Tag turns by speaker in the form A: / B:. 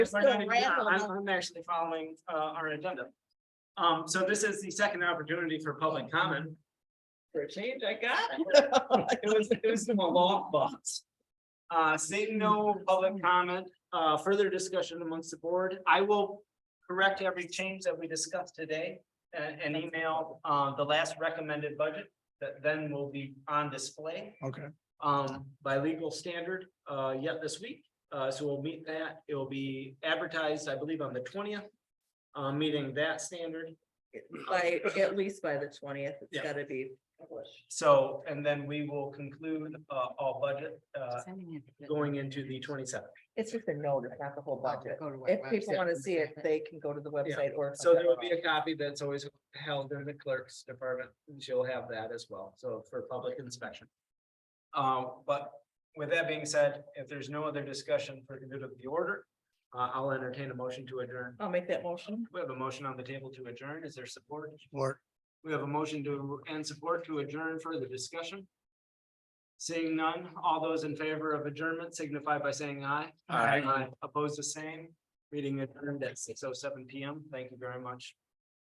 A: There's
B: We're
A: still
B: not- yeah,
A: raffle
B: I'm,
A: going.
B: I'm actually following, uh, our agenda. Um, so this is the second opportunity for public comment. For a change, I got it. It was, it was in my long box. Uh, seeing no public comment, uh, further discussion amongst the board, I will correct every change that we discussed today. And, and email, uh, the last recommended budget that then will be on display
C: Okay,
B: um, by legal standard, uh, yet this week. Uh, so we'll meet that. It will be advertised, I believe, on the twentieth. Uh, meeting that standard.
A: By, at least by the twentieth,
B: Yeah.
A: it's gotta be published.
B: So, and then we will conclude, uh, all budget, uh, going into the twenty-seventh.
A: It's just a notice, not the whole budget.
D: Go to our
A: If people
D: website
A: wanna
D: and
A: see it, they can go to the website or.
B: So there will be a copy that's always held in the clerk's department, and she'll have that as well, so for public inspection. Uh, but with that being said, if there's no other discussion for good of the order, uh, I'll entertain a motion to adjourn.
A: I'll make that motion.
B: We have a motion on the table to adjourn. Is there support?
C: Lord,
B: We have a motion to, and support to adjourn further discussion. Seeing none, all those in favor of adjournment signify by saying aye.
C: Aye.
B: Opposed the same, meeting adjourned at six oh seven P M. Thank you very much.